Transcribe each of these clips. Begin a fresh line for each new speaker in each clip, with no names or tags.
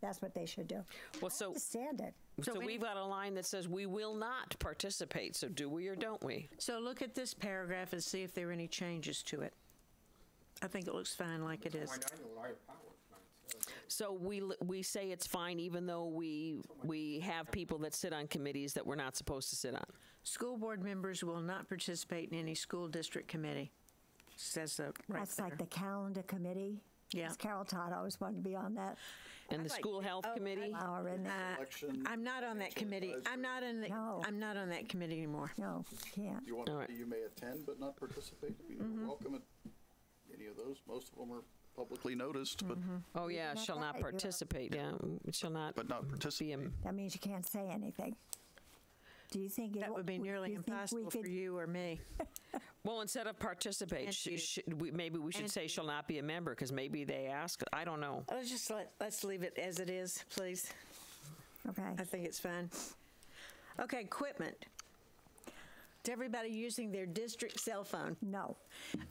That's what they should do.
Well,
Oh.
so
Understand it.
so we've got a line that says we will not participate. So do we or don't we?
So look at this paragraph and see if there are any changes to it. I think it looks fine like it is.
Why not? You already powered mine, so
So we l- we say it's fine even though we we have people that sit on committees that we're not supposed to sit on.
School board members will not participate in any school district committee. Says the right
That's like the
there.
calendar committee.
Yeah.
Because Carol Todd always wanted to be on that.
And the school health
Oh,
committee.
Hour in there.
Uh,
Election
I'm not on that
financial
committee. I'm
advisory.
not in the,
No.
I'm not on that committee anymore.
No, can't.
You want
All
to,
right. Mm-hmm.
say you may attend but not participate. You're welcome at any of those. Most of them are publicly noticed, but
Oh yeah,
not
shall
that,
not
you're-
participate. Yeah, mm, shall not
but not
be.
participate.
A,
That means you can't say anything. Do you think? it
That
w-
would be
do
nearly
you think we
impossible for
could-
you or me.
well, instead of participate,
And
sh-
you.
sh- we, maybe we should
And
say
you.
shall not be a member because maybe they ask. I don't know.
Let's just let, let's leave it as it is, please.
Okay.
I think it's fine. Okay, equipment. To everybody using their district cell phone,
No.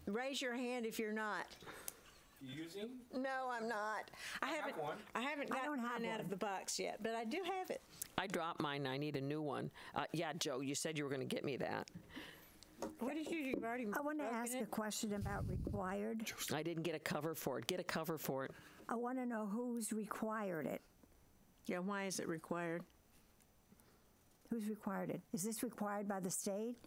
raise your hand if you're not.
Using?
No, I'm not. I
have
haven't.
one.
I haven't
I
gotten
don't have
mine out of
one.
the box yet, but I do have it.
I dropped mine. I need a new one. Uh, yeah, Joe, you said you were going to get me that.
What did you? You've already.
I want to
broken
ask a
it?
question about required.
I didn't get a cover for it. Get a cover for it.
I want to know who's required it.
Yeah. Why is it required?
Who's required it? Is this required by the state?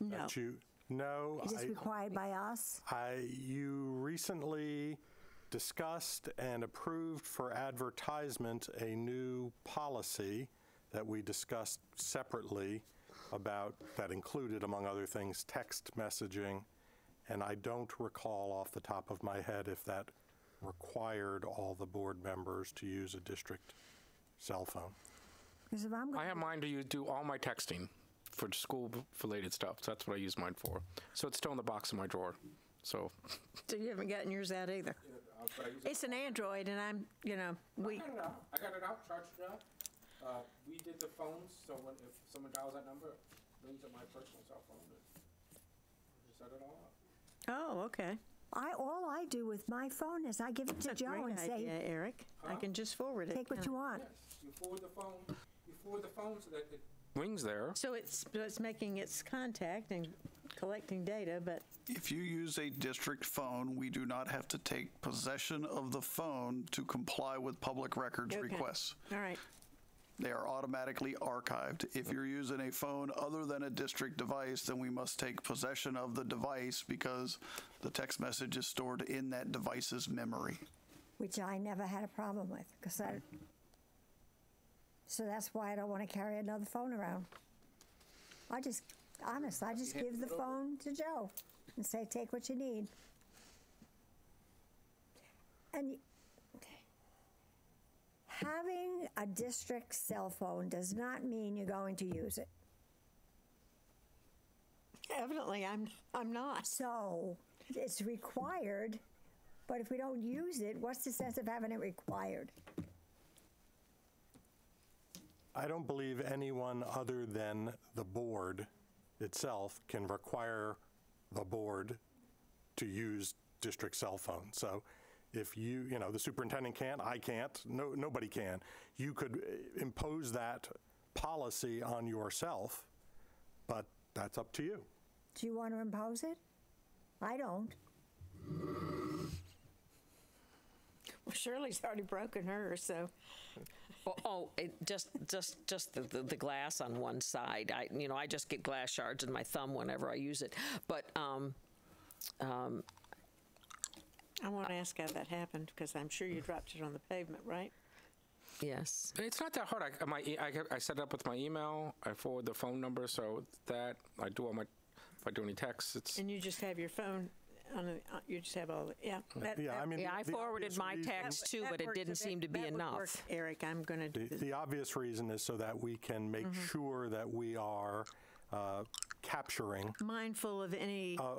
No.
that you Uh, no
Is this
I,
required by us?
I you recently discussed and approved for advertisement a new policy that we discussed separately about that included among other things text messaging and I don't recall off the top of my head if that required all the board members to use a district cell phone.
Because if I'm,
I
gonna-
have mine to use, do all my texting for school-related stuff. So that's what I use mine for. So it's still in the box in my drawer. So
So you haven't gotten yours out either. It's an Android, and I'm. You know, we.
I got it out. I got it out. Charged it up. Uh, we did the phones, so when if someone dials that number, it rings at my personal cell phone. and Set it all up.
Oh, okay.
I, all I do with my phone is I give it to
That's a
Joe
great
and
idea,
say,
Eric. I can just forward it.
take what you want.
Yes, you forward the phone. You forward the phone so that it rings there.
So it's so it's making its contact and collecting data, but
If you use a district phone, we do not have to take possession of the phone to comply with public records
Okay.
requests.
all right.
They are automatically archived. If you're using a phone other than a district device, then we must take possession of the device because the text message is stored in that device's memory.
which I never had a problem with because I. So that's why I don't want to carry another phone around. I just, honest, I just give the phone to Joe and say, take what you need. And y- having a district cell phone does not mean you're going to use it.
Evidently, I'm I'm not.
So it's required, but if we don't use it, what's the sense of having it required?
I don't believe anyone other than the board itself can require the board to use district cell phone. So if you, you know, the superintendent can't, I can't, no, nobody can. You could eh, impose that policy on yourself, but that's up to you.
Do you want to impose it? I don't.
Well, Shirley's already broken hers, so
Oh, oh it just just just the, the, the glass on one side. I you know I just get glass shards in my thumb whenever I use it. But um, um,
I want to ask how that happened because I'm sure you dropped it on the pavement, right?
yes,
It's not that hard. I my e- I, get- I set it up with my email. I forward the phone number, so that I do all my if I do any texts, it's
And you just have your phone on. A, you just have all. The, yeah. That,
Yeah, I mean.
yeah. I
the obvious
forwarded my
reason-
text too,
that
but it
works.
didn't
That-
seem to be
that would
enough.
work, Eric, I'm going
The,
to.
the obvious reason is so that we can make sure that we are uh, capturing
Mindful of any.
uh,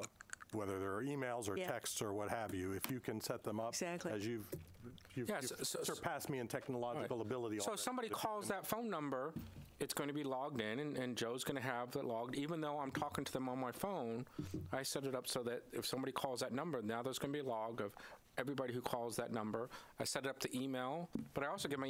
whether there are emails or
Yeah.
texts or what have you, if you can set them up
Exactly.
as you've, you've,
Yeah,
you've
so- so-
surpassed me in technological ability.
So if
already.
somebody calls that phone number, it's going to be logged in, and, and Joe's going to have it logged. Even though I'm talking to them on my phone, I set it up so that if somebody calls that number, now there's going to be a log of everybody who calls that number. I set it up to email, but I also get my